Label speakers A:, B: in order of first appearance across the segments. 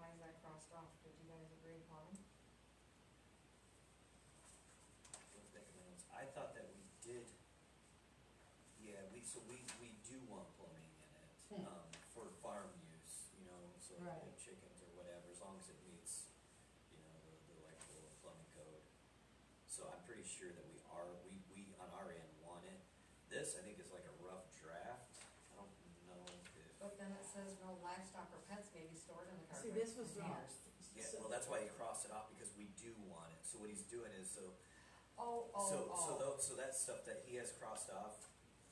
A: crossed off, did you guys agree upon them?
B: Look back at my notes. I thought that we did, yeah, we, so we, we do want plumbing in it,
A: Hmm.
B: um, for farm use, you know, so like
A: Right.
B: chickens or whatever, as long as it meets, you know, the, the electrical and plumbing code. So I'm pretty sure that we are, we, we on our end want it. This, I think, is like a rough draft. I don't know if,
A: But then it says no livestock or pets may be stored in the
C: See,
A: carpet
C: this was wrong.
A: containers.
B: yeah, well, that's why he crossed it off, because we do want it. So what he's doing is, so
A: Oh,
B: So,
A: oh,
B: so
A: oh.
B: tho- so that stuff that he has crossed off,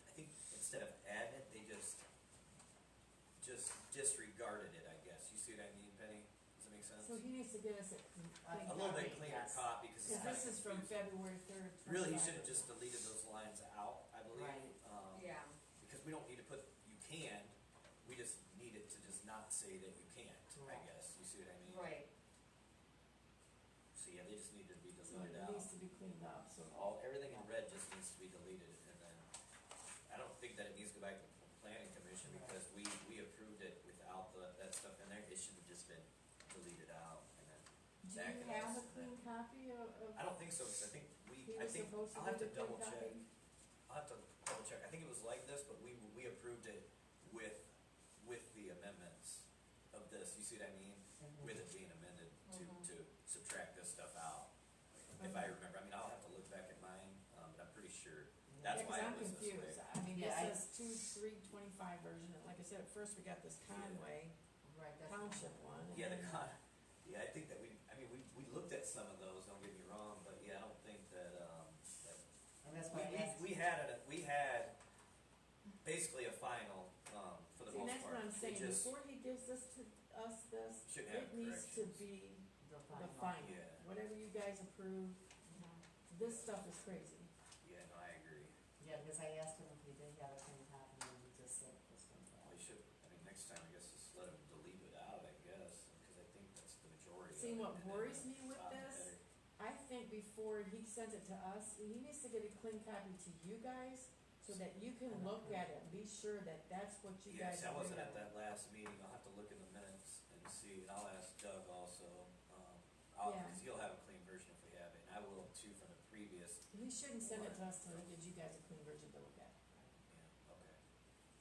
B: I think instead of add it, they just, just disregarded it, I guess. You see what I mean, Penny? Does that make sense?
C: So he needs to get us a.
B: A little bit cleaner
C: Yes.
B: copy, because it's
C: Cause
B: kind of
C: this is from
B: confusing.
C: February third.
B: Really, he should have just deleted those lines out, I believe.
A: Right.
B: um,
A: Yeah,
B: Because we don't need to put, you can, we just need it to just not say that you can't, I
A: Correct.
B: guess. You see what I mean?
A: right,
B: So, yeah, they just need to be
C: So
B: deleted
C: it
B: out.
C: needs to be cleaned up, so.
B: All, everything in red just needs to be deleted, and then, I don't think that it needs to go back to the planning commission, because we, we approved it without the, that stuff in there, it should have just been deleted out, and then,
C: Do
B: Zach
C: you
B: can
C: have
B: ask
C: a clean copy of, of?
B: I don't think so, because I think
C: He
B: we, I
C: was
B: think,
C: supposed to
B: I'll have
C: give
B: to
C: a clean
B: double check,
C: copy?
B: I'll have to double check, I think it was like this, but we, we approved it with, with the amendments of this, you see what I mean? With it being amended
C: Mm-hmm.
A: Mhm.
B: to, to subtract this stuff out, if I remember, I mean, I'll have to look back at mine, um, but I'm pretty sure, that's
C: Yeah,
B: why
C: 'cause I'm
B: it was this way.
C: confused. I mean,
A: Yeah, I-
C: this is two, three twenty-five version, and like I said, at first we got this
B: Yeah.
C: Conway
A: right, that's.
C: Township one. and
B: Yeah, the
C: then-
B: con, yeah, I think that we, I mean, we, we looked at some of those, don't get me wrong, but yeah, I don't think that, um, that.
D: And that's why I asked.
B: We, we, we had, a- we had basically a final, um, for the
C: See,
B: most
C: that's what
B: part.
C: I'm saying,
B: It just,
C: before he gives this to us, this,
B: Should have
C: it needs to
B: corrections.
C: be
D: The
C: the
D: final.
C: final.
B: Yeah.
C: Whatever you guys approve,
A: Mhm.
C: this stuff is crazy.
B: yeah, no, I agree.
D: Yeah, because I asked him if he did have a clean copy, and he just said this
B: We
D: one.
B: should, I mean, next time, I guess, just let them delete it out, I guess, because I think that's the majority. of
C: See,
B: it,
C: what
B: and then
C: worries
B: the
C: me with
B: top
C: this
B: header.
C: I think before he sends it to us, he needs to get a clean copy to you guys, so that you can look at it, and be sure that that's what you guys.
B: Yes, I wasn't at
C: agree on.
B: that last meeting, I'll have to look in the minutes and see, and I'll ask Doug also, um, I'll,
C: Yeah.
B: cause he'll have a clean version if we have it, and I will too from the previous,
C: He shouldn't send it to us till he gives you guys a clean version to look at.
B: yeah, okay.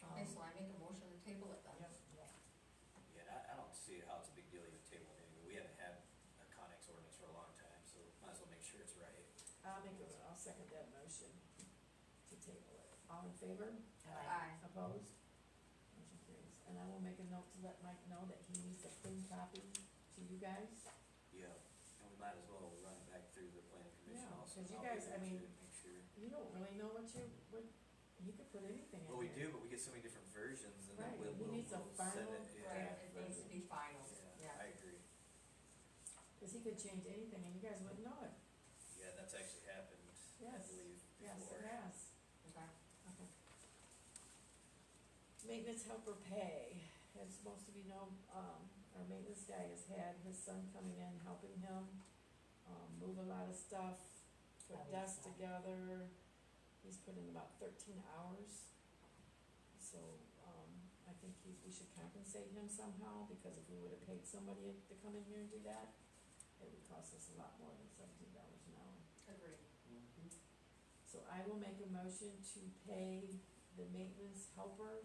A: Okay, so I make a motion to table
C: Um,
A: it then.
D: Yep, yeah.
B: Yeah, and I, I don't see how it's a big deal you table it, anyway. we haven't had a Conex ordinance for a long time, so might as well make sure it's right.
C: I'll make a, I'll second that motion to table it. All in favor?
A: Aye.
C: Opposed? Motion carries. And I will make a note to let Mike know that he needs a clean copy to you guys.
B: Yeah, and we might as well run it back through the planning commission
C: Yeah,
B: also.
C: 'cause you
B: I'll be
C: guys,
B: there
C: I mean-
B: too, Make sure,
C: You don't really know what you, what, you could put anything in there.
B: well, we do, but we get so many different versions and
C: Right,
B: then we'll,
C: he
B: we'll, we'll
C: needs a
B: send
C: final
B: it, yeah.
A: Right, it needs to be final,
B: Yeah, I
A: yeah.
B: agree.
C: Cause he could change anything and you guys wouldn't know it.
B: Yeah, that's actually happened, I
C: Yes.
B: believe,
C: Yes,
B: before.
C: it has.
A: Okay.
C: Okay. Maintenance helper pay, as most of you know, um, our maintenance guy has had his son coming in, helping him, um, move a lot of stuff, put desks together. He's put in about thirteen hours. So, um, I think he, we should compensate him somehow, because if we would've paid somebody to come in here and do that, it would cost us a lot more than seventeen dollars an hour.
A: Agreed.
D: Mhm.
C: So I will make a motion to pay the maintenance helper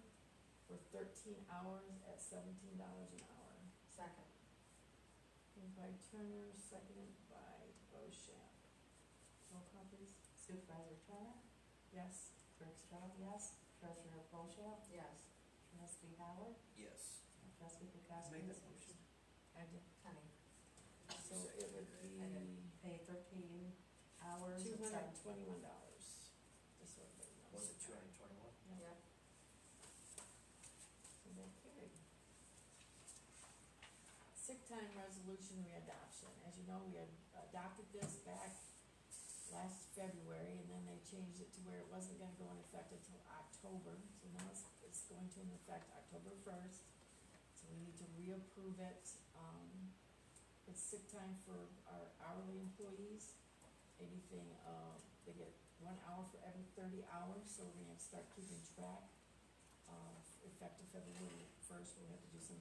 C: for thirteen hours at seventeen dollars an hour.
A: Second.
C: Moved by Turner, seconded by Bochamp. Roll call please.
D: Supervisor Turner,
C: Yes,
D: Bergstrom, yes. Treasurer Bochamp,
A: Yes,
D: trustee Howard,
B: Yes.
D: and trustee Kukowski.
B: Make that motion.
C: I did.
A: Penny.
C: So it would be
D: I Pay thirteen hours.
C: two hundred and twenty-one dollars. Just so everybody knows.
B: Was it two hundred and twenty-one?
C: Yeah,
A: Yep.
C: so that carried. Sick time resolution readoption. As you know, we had adopted this back last February, and then they changed it to where it wasn't gonna go into effect until October, so now it's, it's going to affect October first. So we need to reapprove it, um, it's sick time for our hourly employees, anything, uh, they get one hour for every thirty hours, so we're gonna have to start keeping track. Uh, effective February first, we'll have to do some